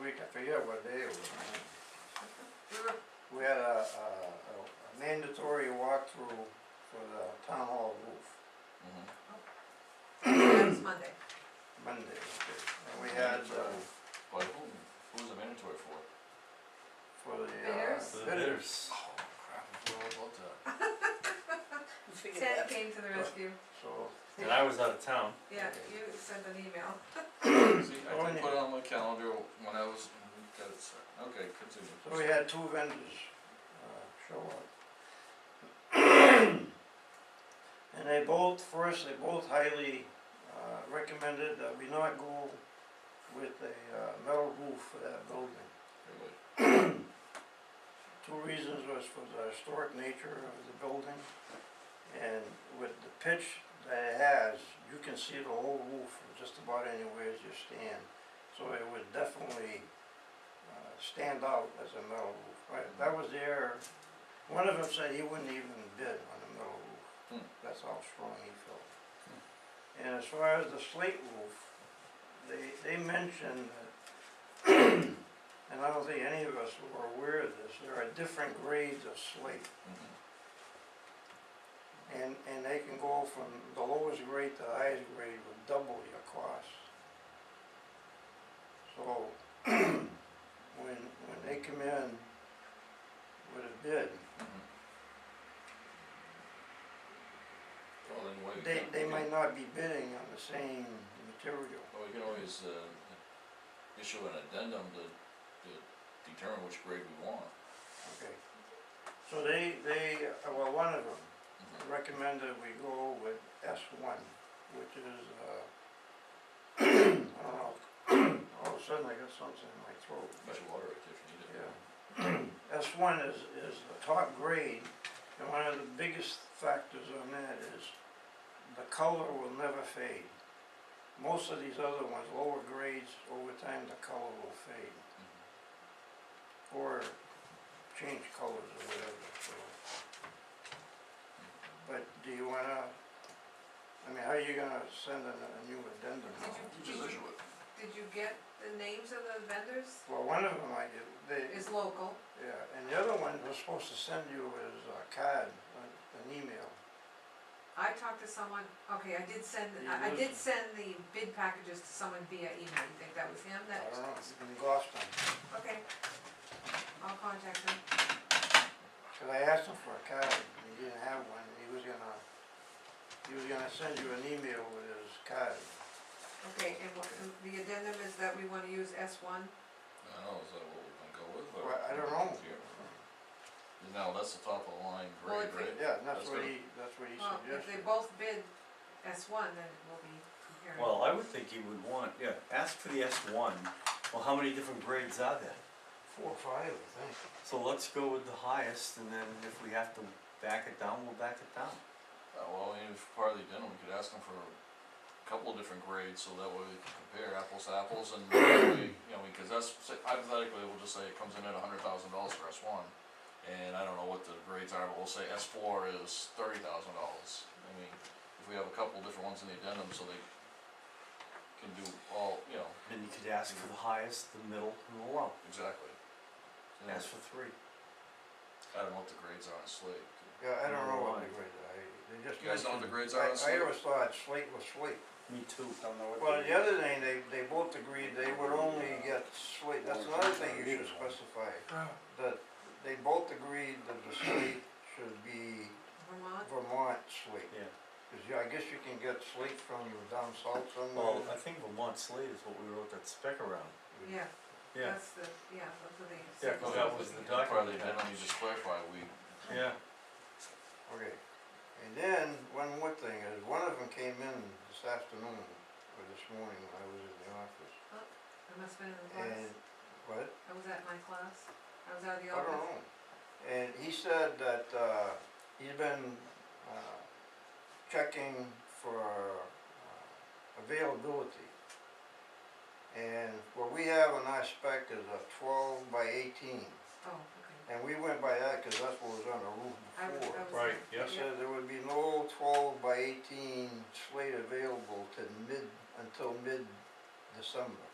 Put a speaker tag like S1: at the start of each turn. S1: week, I forget what day it was. We had a, a a mandatory walkthrough for the town hall roof
S2: Mhm.
S3: Next Monday.
S1: Monday, and we had, uh,
S2: But who, who's the mandatory for?
S1: for the, uh,
S3: Bidders?
S4: The
S1: bidders,
S2: Oh, crap, I forgot all about that.
S3: Ted came to the rescue,
S1: so.
S4: And I was out of town.
S3: yeah, you sent an email.
S2: See,
S1: Oh,
S2: I didn't put it on my calendar when I was, got it, set. okay, continue.
S1: So we had two vendors, uh, show up. And they both, first, they both highly, uh, recommended that we not go with a, uh, metal roof for that building.
S2: Really?
S1: Two reasons was for the historic nature of the building, and with the pitch that it has, you can see the whole roof from just about anywhere as you stand. So it would definitely, uh, stand out as a metal roof, right, that was their, one of them said he wouldn't even bid on a metal roof.
S2: Hmm.
S1: That's how strong he felt. And as far as the slate roof, they, they mentioned that and I don't think any of us were aware of this, there are different grades of slate.
S2: Mhm.
S1: And, and they can go from the lowest grade to the highest grade with double your cost. So, when, when they come in with a bid,
S2: Mm-hmm. Well, then wait.
S1: they, they might not be bidding on the same material.
S2: Well, we can always, uh, issue an addendum to, to determine which grade we want.
S1: Okay. So they, they, uh, well, one of them
S2: Mhm.
S1: recommended we go with S one, which is, uh, I don't know, all of a sudden I got something in my throat.
S2: Get your water if you need it.
S1: Yeah. S one is, is the top grade, and one of the biggest factors on that is the color will never fade. Most of these other ones, lower grades, over time, the color will fade.
S2: Mm-hmm.
S1: Or change colors or whatever, so. But do you wanna, I mean, how are you gonna send a, a new addendum?
S3: Did you-
S2: You just issue it.
S3: Did you get the names of the vendors?
S1: Well, one of them I did, they,
S3: Is local,
S1: Yeah, and the other one was supposed to send you is a card, a- an email.
S3: I talked to someone, okay, I did send, I, I did send the bid packages to someone via email, you think that was him
S1: I
S3: that?
S1: don't know, it's in Gloucester.
S3: Okay. I'll contact him,
S1: 'Cause I asked him for a card, and he didn't have one, and he was gonna, he was gonna send you an email with his card.
S3: okay, and what, and the addendum is that we wanna use S one,
S2: I don't know, is that what we're gonna go with, or?
S1: Well, I don't know.
S2: Yeah. Now, that's the top of the line
S3: Well,
S2: grade,
S3: if we-
S2: right?
S1: Yeah, and that's
S2: That's
S1: what
S2: good.
S1: he, that's what he
S3: well, if they
S1: suggested.
S3: both bid S one, then it will be compared.
S4: Well, I would think you would want, yeah, ask for the S one. Well, how many different grades are there?
S1: Four or five, I think.
S4: So let's go with the highest and then if we have to back it down, we'll back it down.
S2: Uh, well, and if part of the addendum, we could ask them for a couple of different grades, so that way we can compare apples to apples, and that way, you know, because that's, say- hypothetically, we'll just say it comes in at a hundred thousand dollars for S one, and I don't know what the grades are, but we'll say S four is thirty thousand dollars. I mean, if we have a couple different ones in the addendum, so they can do all, you know,
S4: Then you could ask for the highest, the middle and the low.
S2: exactly. You know,
S4: Ask for three.
S2: I don't know what the grades are on slate.
S1: Yeah, I don't know what the
S4: Right.
S1: grade, I, they just.
S2: You guys know what
S1: mentioned-
S2: the grades are on
S1: I-
S2: slate?
S1: I always thought slate was slate.
S4: Me too.
S5: Don't know what.
S1: Well,
S5: they-
S1: the other thing, they, they both agreed they would only get slate, that's another thing you should specify. That they both agreed that the slate should be
S3: Vermont,
S1: Vermont slate.
S4: Yeah.
S1: Cause you- I guess you can get slate from you down south
S4: Well, I
S1: somewhere.
S4: think Vermont Slate is what we wrote that spec around.
S3: yeah,
S4: Yeah,
S3: that's the, yeah, that's what they
S4: Yeah,
S3: said.
S4: 'cause that was the document.
S2: Part of the addendum, you just clarify, we,
S4: yeah.
S1: Okay, and then, one more thing is, one of them came in this afternoon, or this morning when I was in the office,
S3: I must've been in the class,
S1: and, what?
S3: I was at my class, I was out of the
S1: I don't
S3: office.
S1: know. And he said that, uh, he's been, uh, checking for uh, availability. And what we have on our spec is a twelve by eighteen,
S3: Oh, okay,
S1: and we went by that, cause that's what was on the roof
S3: I was,
S1: before.
S3: I was.
S4: Right,
S3: there.
S4: yes.
S1: He said there would be no twelve by eighteen slate available to mid, until mid-December.